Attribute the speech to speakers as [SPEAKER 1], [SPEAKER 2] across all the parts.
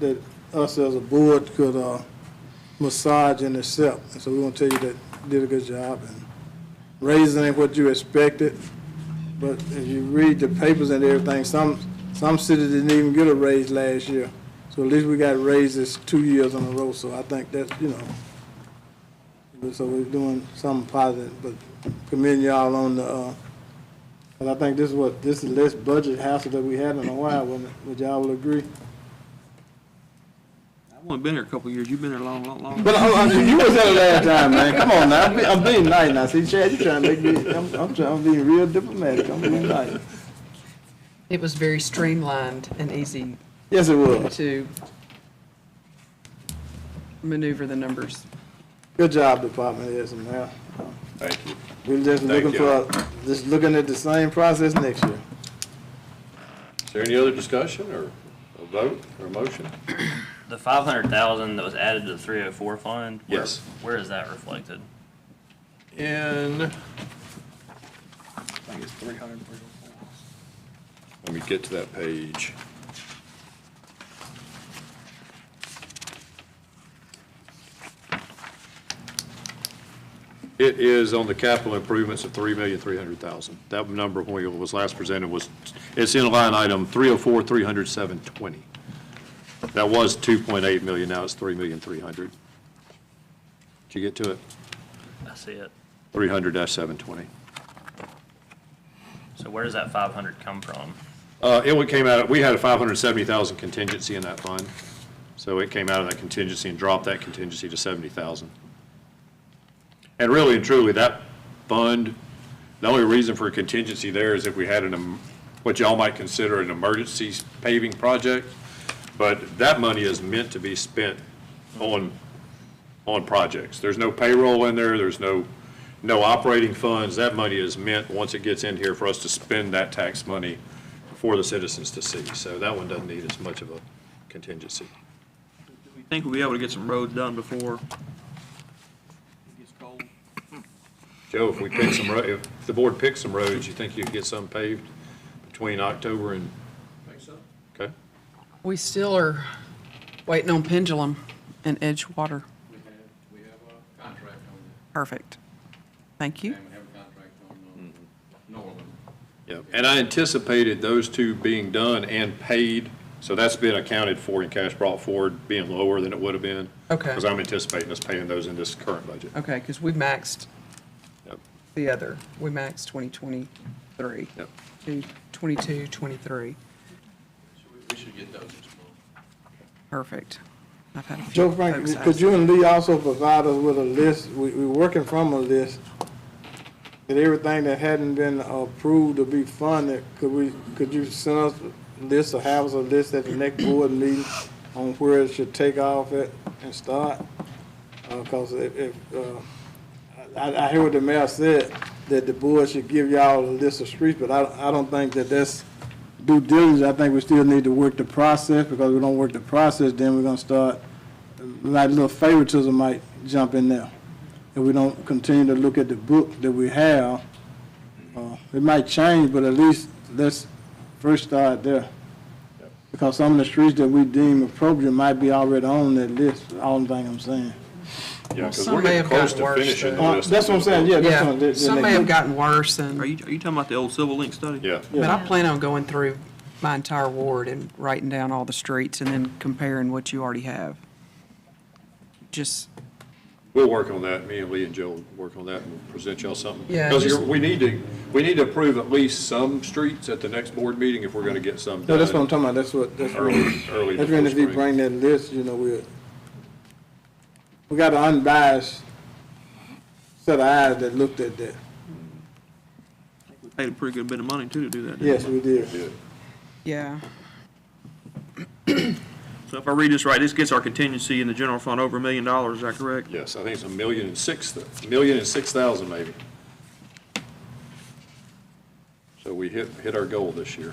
[SPEAKER 1] that us as a board could uh, massage and accept. And so we want to tell you that you did a good job and raising ain't what you expected. But if you read the papers and everything, some, some cities didn't even get a raise last year. So at least we got raises two years in a row, so I think that's, you know, so we're doing something positive, but commend y'all on the, uh, and I think this is what, this is less budget hassle that we had in a while, wouldn't it? Would y'all all agree?
[SPEAKER 2] I've only been here a couple of years. You've been here a long, long, long.
[SPEAKER 1] But I, I, you was there the last time, man. Come on now. I'm, be, I'm being nice now. See, Chad, you trying to make me. I'm, I'm trying. I'm being real diplomatic. I'm being nice.
[SPEAKER 3] It was very streamlined and easy
[SPEAKER 1] Yes, it was.
[SPEAKER 3] to maneuver the numbers.
[SPEAKER 1] Good job, Department heads and now.
[SPEAKER 4] Thank you.
[SPEAKER 1] We're just
[SPEAKER 4] Thank
[SPEAKER 1] looking for, just looking at the same process next year.
[SPEAKER 4] Is there any other discussion or a vote or a motion?
[SPEAKER 5] The five hundred thousand that was added to the three oh four fund? where-
[SPEAKER 4] Yes.
[SPEAKER 5] Where is that reflected?
[SPEAKER 4] In, I think it's three hundred. Let me get to that page. It is on the capital improvements of three million, three hundred thousand. That number when it was last presented was, it's in line item three oh four, three hundred, seven twenty. That was two point eight million, now it's three million, three hundred. Did you get to it?
[SPEAKER 5] I see it.
[SPEAKER 4] 300-720.
[SPEAKER 5] So where does that five hundred come from?
[SPEAKER 4] Uh, It would came out, we had a 570,000 contingency in that fund, so it came out of that contingency and dropped that contingency to 70,000. And really and truly, that fund, the only reason for a contingency there is if we had an, em- what y'all might consider an emergency paving project, but that money is meant to be spent on, on projects. There's no payroll in there, there's no, no operating funds. That money is meant, once it gets in here, for us to spend that tax money for the citizens to see. So that one doesn't need as much of a contingency.
[SPEAKER 2] We think we'll be able to get some roads done before it gets cold.
[SPEAKER 4] Joe, if we pick some, ro- if the board picks some roads, you think you'd get some paved between October and? Think so. Okay.
[SPEAKER 3] We still are waiting on Pendulum and Edgewater.
[SPEAKER 6] We have, we have a contract on it,
[SPEAKER 3] Perfect. Thank you.
[SPEAKER 6] and we have a contract on um, Norland.
[SPEAKER 4] Yep, and I anticipated those two being done and paid, so that's been accounted for in cash brought forward, being lower than it would have been.
[SPEAKER 3] Okay.
[SPEAKER 4] Because I'm anticipating us paying those in this current budget.
[SPEAKER 3] Okay, because we maxed
[SPEAKER 4] Yep.
[SPEAKER 3] the other. We maxed 2023
[SPEAKER 4] Yep.
[SPEAKER 3] to 22, 23.
[SPEAKER 6] So we- we should get those as well.
[SPEAKER 3] Perfect. I've had a few
[SPEAKER 1] Joe Frank,
[SPEAKER 3] folks ask
[SPEAKER 1] could you and Lee also provide us with a list? We, we're working from a list. That everything that hadn't been approved to be funded, could we, could you send us a list or have us a list at the next board meeting on where it should take off at and start? Uh 'cause cause if, if, uh, I, I hear what the mayor said, that the board should give y'all a list of streets, but I, I don't think that that's due diligence. I think we still need to work the process, because we don't work the process, then we're gonna start, like, little favoritism might jump in there. If we don't continue to look at the book that we have, uh, it might change, but at least let's first start there. Because some of the streets that we deem appropriate might be already on that list, all the thing I'm saying.
[SPEAKER 4] Yeah, because
[SPEAKER 3] Some
[SPEAKER 4] we're
[SPEAKER 3] may have
[SPEAKER 4] getting close
[SPEAKER 3] gotten
[SPEAKER 4] to
[SPEAKER 3] worse,
[SPEAKER 4] finishing the
[SPEAKER 3] though.
[SPEAKER 1] Uh,
[SPEAKER 4] list.
[SPEAKER 1] That's what I'm saying, yeah, that's what.
[SPEAKER 3] Yeah,
[SPEAKER 1] I'm-
[SPEAKER 3] some may have gotten worse and.
[SPEAKER 2] Are you, are you talking about the old Civil Link study?
[SPEAKER 4] Yeah,
[SPEAKER 3] But I plan on going through my entire ward and writing down all the streets and then comparing what you already have. Just,
[SPEAKER 4] we'll work on that, me and Lee and Joe will work on that and present y'all something.
[SPEAKER 3] Yeah,
[SPEAKER 4] Because
[SPEAKER 3] just-
[SPEAKER 4] we need to, we need to approve at least some streets at the next board meeting if we're going to get some
[SPEAKER 1] No, that's what I'm talking
[SPEAKER 4] done
[SPEAKER 1] about, that's what, that's what.
[SPEAKER 4] early, early
[SPEAKER 1] That's when
[SPEAKER 4] before
[SPEAKER 1] if we bring
[SPEAKER 4] spring.
[SPEAKER 1] that list, you know, we, we got an unbiased set of eyes that looked at that.
[SPEAKER 2] We Paid a pretty good bit of money too to do that. didn't
[SPEAKER 1] Yes,
[SPEAKER 2] we?
[SPEAKER 1] we did.
[SPEAKER 4] Yeah.
[SPEAKER 3] yeah,
[SPEAKER 2] So if I read this right, this gets our contingency in the general fund over a million dollars, is that correct?
[SPEAKER 4] Yes, I think it's a million and six, a million and six thousand maybe. So we hit, hit our goal this year.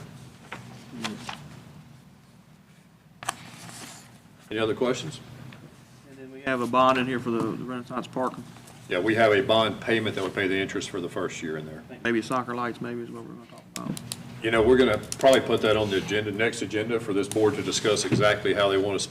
[SPEAKER 4] Any other questions?
[SPEAKER 2] And then we have a bond in here for the the Renaissance Park,
[SPEAKER 4] Yeah, we have a bond payment that would pay the interest for the first year in there.
[SPEAKER 2] maybe soccer lights, maybe is what we're gonna talk about.
[SPEAKER 4] you know, we're going to probably put that on the agenda, next agenda for this board to discuss exactly how they want to